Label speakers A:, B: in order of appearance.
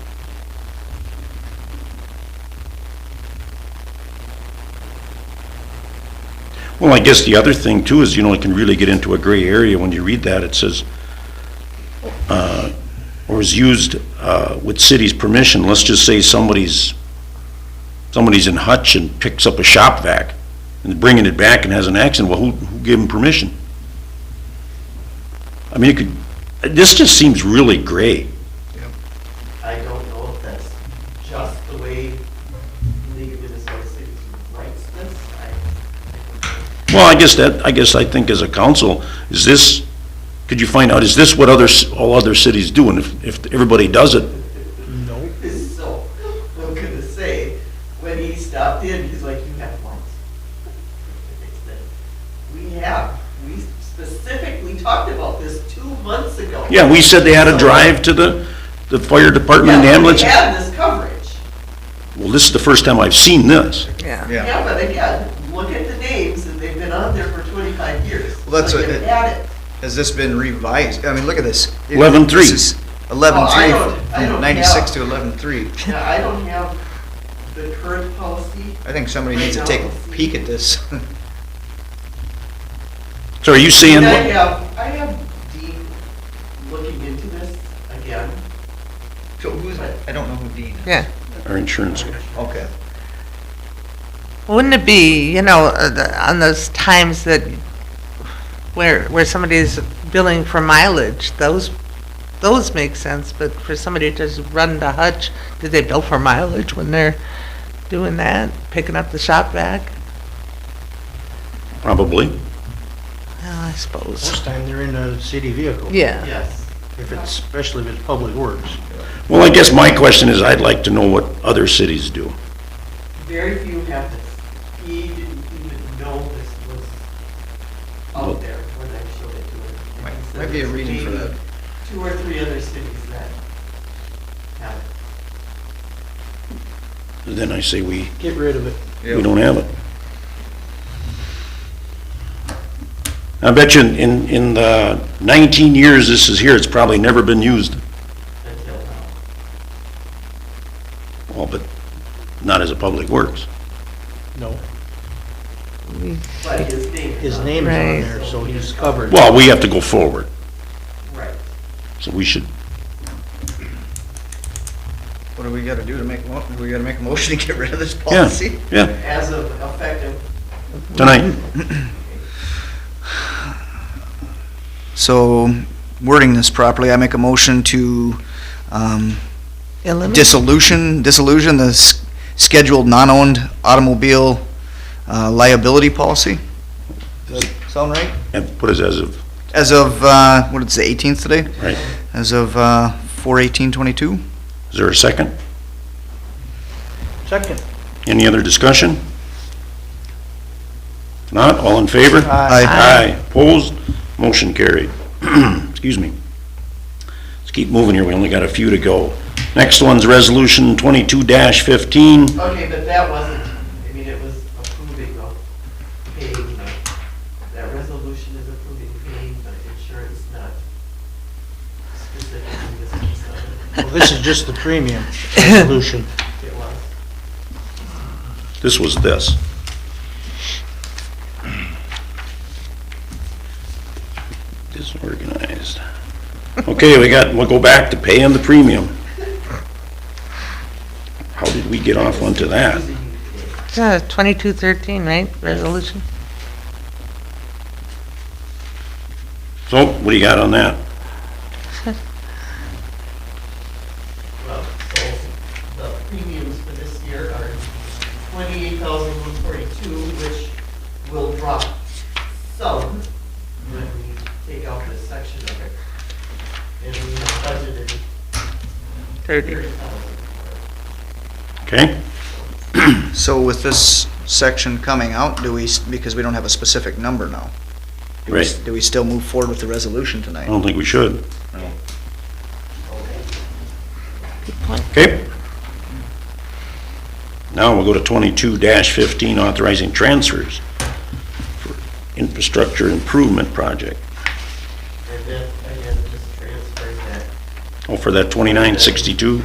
A: Well, I guess the other thing too is, you know, it can really get into a gray area when you read that. It says, uh, or is used uh, with city's permission. Let's just say somebody's, somebody's in Hutch and picks up a shop vac and bringing it back and has an accident. Well, who, who gave him permission? I mean, it could, this just seems really gray.
B: I don't know if that's just the way League of Minnesota Cities writes this. I-
A: Well, I guess that, I guess I think as a council, is this, could you find out, is this what others, all other cities do? And if, if everybody does it,
B: It's so, I'm gonna say, when he stopped in, he's like, you have lights. I said, We have, we specifically talked about this two months ago.
A: yeah, we said they had to drive to the, the fire department and the
B: Yeah,
A: ambulance.
B: We have this coverage.
A: Well, this is the first time I've seen this.
C: Yeah,
D: Yeah.
B: Yeah, but again, look at the names, and they've been on there for twenty-five years.
D: Well, that's
B: So
D: what
B: you've
D: it-
B: had it.
D: Has this been revised? I mean, look at this.
A: 11-3.
D: Eleven
B: Oh, I
D: three,
B: don't- I don't
D: from ninety-six
B: have-
D: to eleven three.
B: Now, I don't have the current policy.
D: I think somebody needs to take a peek at this.
A: So are you saying,
B: And I
A: what-
B: have, I have Dean looking into this again.
D: So who's I don't know who Dean is.
C: yeah.
A: our insurance guy?
D: Okay.
C: Wouldn't it be, you know, uh, the- on those times that, where, where somebody's billing for mileage, those, those make sense, but for somebody to just run to Hutch, did they bill for mileage when they're doing that, picking up the shop vac?
A: Probably.
C: Well, I suppose.
E: Most time they're in a city vehicle.
C: Yeah,
B: Yes.
E: If it's, especially if it's public works.
A: Well, I guess my question is, I'd like to know what other cities do.
B: Very few have this. He didn't even know this was out there when I showed it to him.
D: Might-
B: He said
D: might be a
B: it's
D: reading for
B: maybe
D: that.
B: Two or three other cities that have it.
A: Then I say we,
E: Get rid of it.
A: we don't have it. I bet you in- in, in the nineteen years this is here, it's probably never been used.
B: until now.
A: Well, but not as a public works.
E: No,
B: But his name is
E: his
B: on
E: name's
C: Right.
E: on there, so he's covered.
A: Well, we have to go forward,
B: there. Right.
A: so we should,
D: What do we gotta do to make, mo- do we gotta make a motion to get rid of this
A: yeah,
D: policy?
A: yeah,
B: As of effective
A: tonight.
D: So wording this properly, I make a motion to, um,
C: eliminate,
D: dissolution, dissolution, the s- scheduled non-owned automobile uh, liability policy? Does that sound right?
A: And put us as of,
D: As of, uh, what is the eighteenth today?
A: right,
D: As of, uh, four eighteen twenty-two?
A: is there a second?
E: Second,
A: Any other discussion? Not, all in favor?
E: Aye.
A: Aye, opposed, motion carried. Excuse me. Let's keep moving here, we only got a few to go. Next one's resolution twenty-two fifteen.
B: Okay, but that wasn't, I mean, it was approving of paying, uh, that resolution is approving paying, but insurance not specifically this is, uh,
E: well, this is just the premium resolution.
B: it was.
A: This was this. Disorganized. Okay, we got, we'll go back to paying the premium. How did we get off onto that?
C: twenty-two thirteen, right, resolution?
A: So, what do you got on that?
B: Well, so the premiums for this year are twenty-eight thousand one forty-two, which will drop some when we take out this section of it. And we have budgeted
C: Thirty.
B: thirty thousand.
A: Okay?
D: So with this section coming out, do we, s- because we don't have a specific number now? do we s-
A: Right.
D: Do we still move forward with the resolution
A: I
D: tonight?
A: don't think we should.
B: Okay.
A: Okay? Now we'll go to twenty-two fifteen, authorizing transfers for infrastructure improvement project.
B: And then, again, just transfer that
A: Oh, for that twenty-nine sixty-two?